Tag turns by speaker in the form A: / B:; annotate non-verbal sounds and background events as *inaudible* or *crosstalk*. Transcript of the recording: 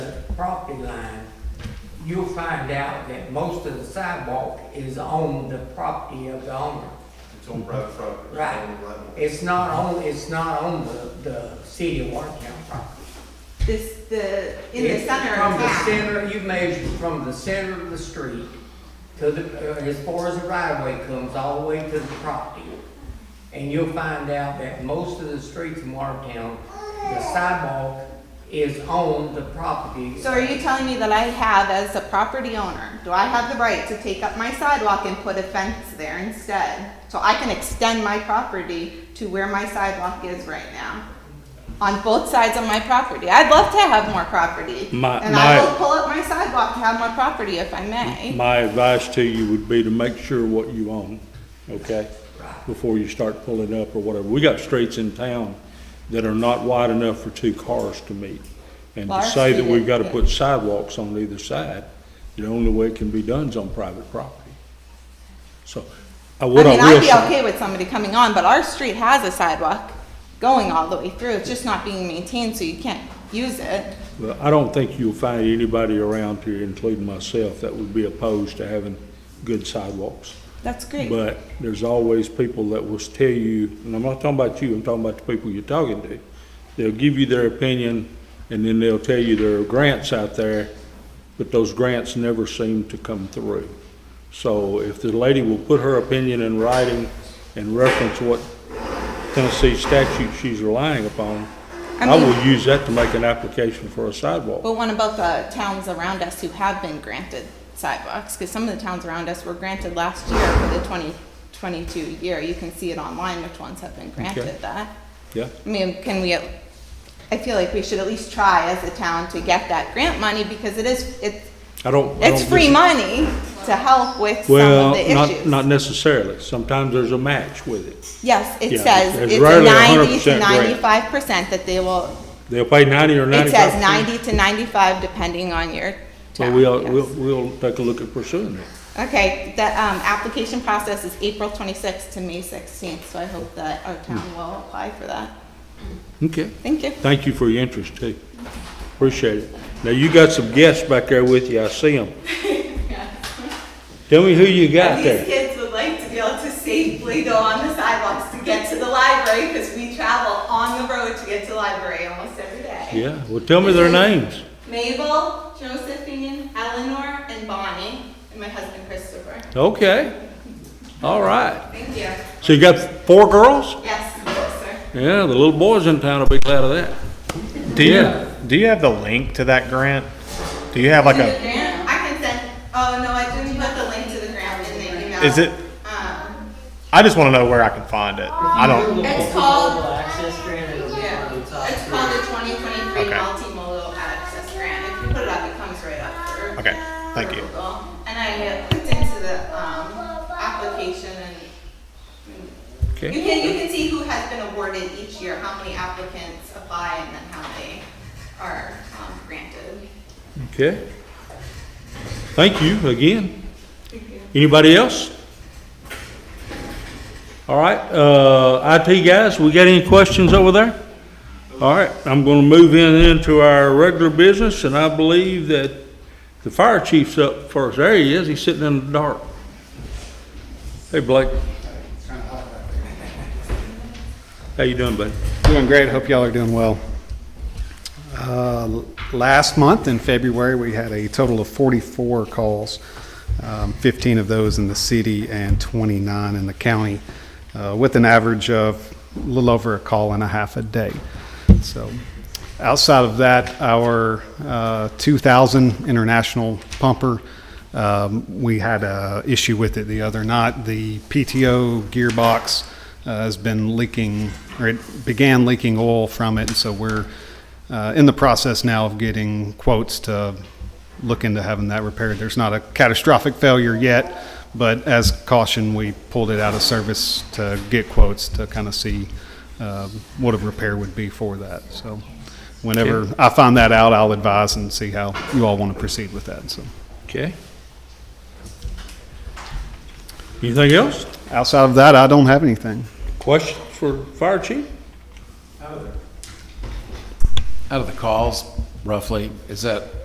A: property line, you'll find out that most of the sidewalk is on the property of the owner.
B: It's on private property. it's
A: Right.
B: on the right of way.
A: It's not on, it's not on the, the city of Watertown property.
C: This, the, in the
A: It's
C: center
A: From
C: of
A: the
C: town.
A: center, you measure from the center of the street to the, uh, as far as the right of way comes, all the way to the property. And you'll find out that most of the streets in Watertown, the sidewalk is on the property.
C: So are you telling me that I have, as a property owner, do I have the right to take up my sidewalk and put a fence there instead? So I can extend my property to where my sidewalk is right now? On both sides of my property. I'd love to have more property.
D: My-
C: And I
D: my-
C: will pull up my sidewalk to have more property if I may.
D: My advice to you would be to make sure what you own, okay?
A: Right.
D: Before you start pulling up or whatever. We got streets in town that are not wide enough for two cars to meet. And to
C: Large
D: say that we've
C: street,
D: gotta
C: yeah.
D: put sidewalks on either side, the only way it can be done is on private property. So, I
C: I
D: what I
C: mean, I'd
D: will
C: be
D: say,
C: okay with somebody coming on, but our street has a sidewalk going all the way through. It's just not being maintained, so you can't use it.
D: well, I don't think you'll find anybody around here, including myself, that would be opposed to having good sidewalks.
C: That's great.
D: But there's always people that will tell you, and I'm not talking about you, I'm talking about the people you're talking to. They'll give you their opinion, and then they'll tell you there are grants out there, but those grants never seem to come through. So if the lady will put her opinion in writing and reference what Tennessee statute she's relying upon,
C: I
D: I will
C: mean- Oh.
D: use that to make an application for a sidewalk.
C: But what about the towns around us who have been granted sidewalks? Because some of the towns around us were granted last year for the 2022 year. You can see it online which ones have been
D: Okay.
C: granted that.
D: Yeah?
C: I mean, can we, at- I feel like we should at least try as a town to get that grant money because it is, it's,
D: I don't. I
C: it's
D: don't
C: free
D: dis-
C: money to help with some of
D: Well,
C: the
D: not,
C: issues.
D: not necessarily. Sometimes there's a match with it.
C: Yes, it
D: Yeah,
C: says
D: there's
C: it's a
D: rarely a hundred
C: ninety to
D: percent grant.
C: ninety-five percent that they will,
D: They'll pay ninety or
C: it
D: ninety-five.
C: says ninety to ninety-five depending on your
D: So
C: town.
D: we'll,
C: yes.
D: we'll, we'll take a look at pursuing it.
C: Okay, the, um, application process is April twenty-sixth to May sixteenth, so I hope that our town will apply for that.
D: Okay.
C: Thank you.
D: Thank you for your interest too. Appreciate it. Now, you got some guests back there with you. I
C: *laughs*
D: see them. Tell me who you got
C: These
D: there.
C: kids would like to be able to safely go on the sidewalks to get to the library, because we travel on the road to get to the library almost every day.
D: Yeah, well, tell me their names.
C: Mabel, Josephine, Eleanor, and Bonnie, and my husband Christopher.
D: Okay. All right.
C: Thank you.
D: So you got four girls?
C: Yes, sir.
D: Yeah, the little boys in town will be glad of that.
E: Do you
D: Yeah.
E: do you have the link to that grant? Do you have like
C: To the
E: a
C: grant, I can send, oh, no, I didn't put the link to the grant in the email.
E: Is it-
C: Um,
E: I just want to know where I can find it. I don't
C: It's called,
F: access grant, it'll be
C: yeah,
F: on the top
C: it's
F: three.
C: called the twenty twenty-three
E: Okay.
C: multimodal access grant. If you put it up, it comes right up for.
E: Okay, thank you.
C: for Google. And I uh, clicked into the, um, application and You
D: Okay.
C: can, you can see who has been awarded each year, how many applicants apply and then how they are um, granted.
D: Okay. Thank you again. Anybody else? All right, uh, IT guys, we got any questions over there? All right, I'm gonna move in into our regular business, and I believe that the fire chief's up first. There he is, he's sitting in the dark. Hey, Blake. How you doing, buddy?
G: Doing great, hope y'all are doing well. Uh, Last month, in February, we had a total of 44 calls, um, 15 of those in the city and 29 in the county, uh, with an average of a little over a call and a half a day. So outside of that, our uh, 2,000 international pumper, um, we had a issue with it the other night. The PTO gearbox uh, has been leaking, or it began leaking oil from it, and so we're uh, in the process now of getting quotes to look into having that repaired. There's not a catastrophic failure yet, but as caution, we pulled it out of service to get quotes to kind of see um, what a repair would be for that. So whenever I find that out, I'll advise and see how you all want to proceed with that. So
D: Okay. Anything else?
G: outside of that, I don't have anything.
D: Questions for fire chief?
H: Out of the calls, roughly, is that